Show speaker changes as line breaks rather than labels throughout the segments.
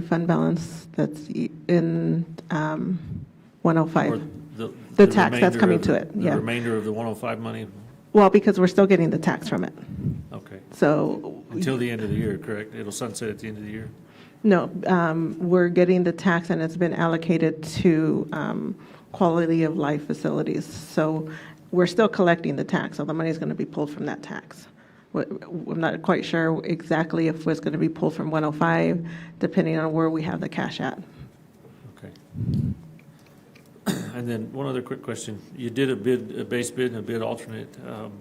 fund balance that's i- in um, 105.
The
The tax that's
remainder
coming
of-
to it, yeah.
The remainder of the 105 money?
Well, because we're still getting the tax from it.
Okay.
So,
Until the end of the year, correct? It'll sunset at the end of the year?
no, um, we're getting the tax and it's been allocated to um, quality of life facilities. So we're still collecting the tax, so the money's going to be pulled from that tax. Wh- wh- I'm not quite sure exactly if it's going to be pulled from 105, depending on where we have the cash at.
Okay. And then one other quick question. You did a bid, a base bid and a bid alternate. Um,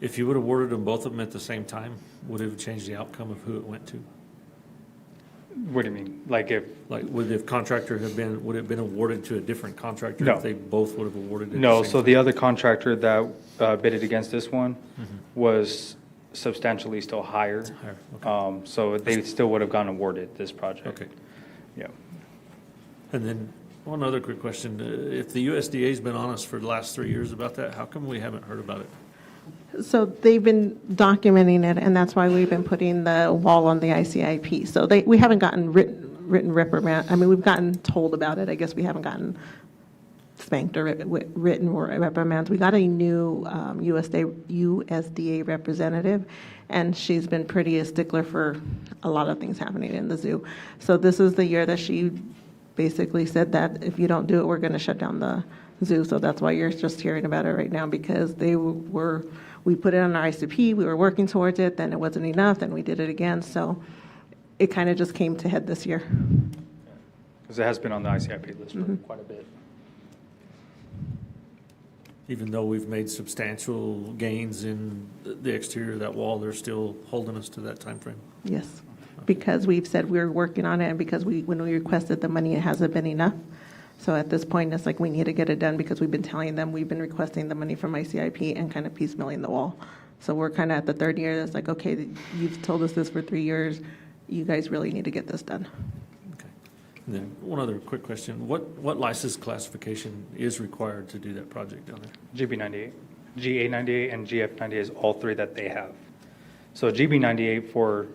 If you would have awarded them, both of them at the same time, would it have changed the outcome of who it went to?
What do you mean? Like if,
Like, would the contractor have been, would it have been awarded to a different contractor?
No.
If they both would have awarded it? at
no,
same
so
time?
the other contractor that uh, bidded against this one was substantially still higher.
Mm-hmm. Higher, okay.
Um, So they still would have gone awarded this project.
Okay.
Yeah.
And then one other quick question. Uh, If the USDA's been on us for the last three years about that, how come we haven't heard about it?
So they've been documenting it, and that's why we've been putting the wall on the ICIP. So they, we haven't gotten written, written reprimand, I mean, we've gotten told about it, I guess we haven't gotten spanked or writ- writ- written or reprimands. We got a new um, USDA, USDA representative, and she's been pretty a stickler for a lot of things happening in the zoo. So this is the year that she basically said that if you don't do it, we're going to shut down the zoo. So that's why you're just hearing about it right now, because they were, we put it on our ICP, we were working towards it, then it wasn't enough, then we did it again. So it kind of just came to head this year.
Because it has been on the ICIP list for quite a bit.
Even though we've made substantial gains in the- the exterior of that wall, they're still holding us to that timeframe?
Yes, because we've said we're working on it, and because we, when we requested the money, it hasn't been enough. So at this point, it's like, we need to get it done, because we've been telling them, we've been requesting the money from ICIP and kind of piecemealing the wall. So we're kind of at the third year, it's like, okay, you've told us this for three years, you guys really need to get this done.
Okay. And then one other quick question. What, what license classification is required to do that project down there?
GB ninety-eight, GA ninety-eight, and GF ninety-eight is all three that they have. So GB ninety-eight for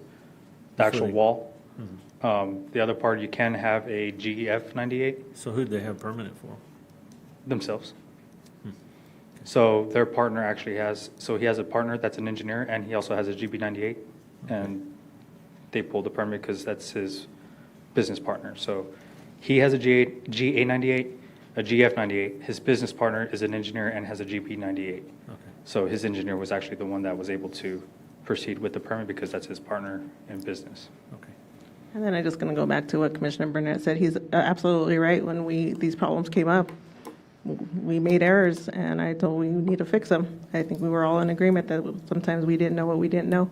the actual
Footing.
wall.
Mm-hmm.
Um, The other part, you can have a GF ninety-eight
So who'd they have permanent for?
themselves. So their partner actually has, so he has a partner that's an engineer, and he also has a GB ninety-eight, and they pulled the permit because that's his business partner. So he has a GA, GA ninety-eight, a GF ninety-eight. His business partner is an engineer and has a GP ninety-eight.
Okay.
So his engineer was actually the one that was able to proceed with the permit because that's his partner in business.
Okay.
And then I'm just going to go back to what Commissioner Burnett said. He's uh, absolutely right. When we, these problems came up, we made errors, and I told we need to fix them. I think we were all in agreement that sometimes we didn't know what we didn't know.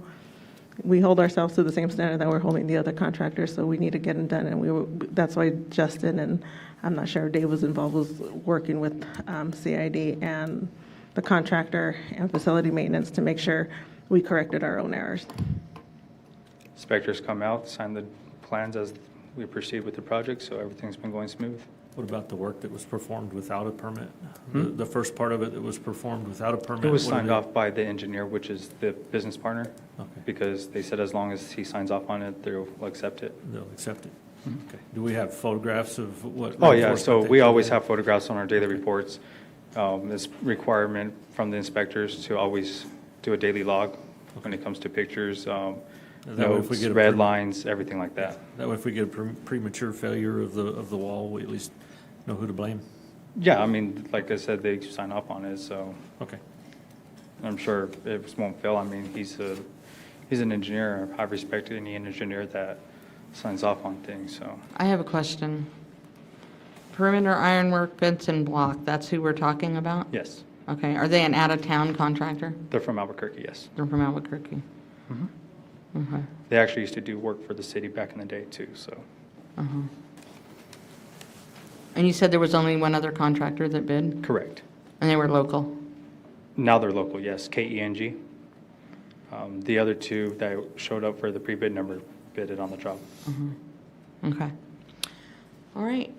We hold ourselves to the same standard that we're holding the other contractors, so we need to get them done. And we were, that's why Justin and, I'm not sure if Dave was involved, was working with um, CID and the contractor and facility maintenance to make sure we corrected our own errors.
Inspectors come out, sign the plans as we proceed with the project, so everything's been going smooth.
What about the work that was performed without a permit? The, the first part of it that was performed without a permit?
Hmm? It was
what did
signed off by the engineer, which is the business partner,
Okay.
because they said as long as he signs off on it, they'll accept it.
They'll accept it. Okay. Do we have photographs of what?
Mm-hmm. Oh, yeah, so
reinforcement they
we
put
always
in?
have photographs on our daily reports. Um, This requirement from the inspectors to always do a daily log when it comes to pictures, um,
And that way if we
notes,
get a
red
perm-
lines, everything like that.
That way, if we get a pre- premature failure of the, of the wall, we at least know who to blame.
Yeah, I mean, like I said, they sign off on it, so
Okay.
I'm sure it won't fail. I mean, he's a, he's an engineer. I respect any engineer that signs off on things, so.
I have a question. Perimeter ironwork fence and block, that's who we're talking about?
Yes,
Okay, are they an out-of-town contractor?
they're from Albuquerque, yes.
They're from Albuquerque? Okay,
They actually used to do work for the city back in the day too, so.
uh-huh. And you said there was only one other contractor that bid, and
Correct.
they were local?
Now they're local, yes, KENG. Um, The other two that showed up for the pre-bid number bidded on the job.
Okay. All right.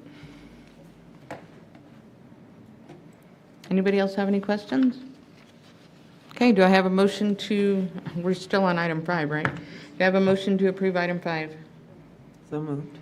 Anybody else have any questions? Okay, do I have a motion to, we're still on item five, right? Do I have a motion to approve item five?
So moved.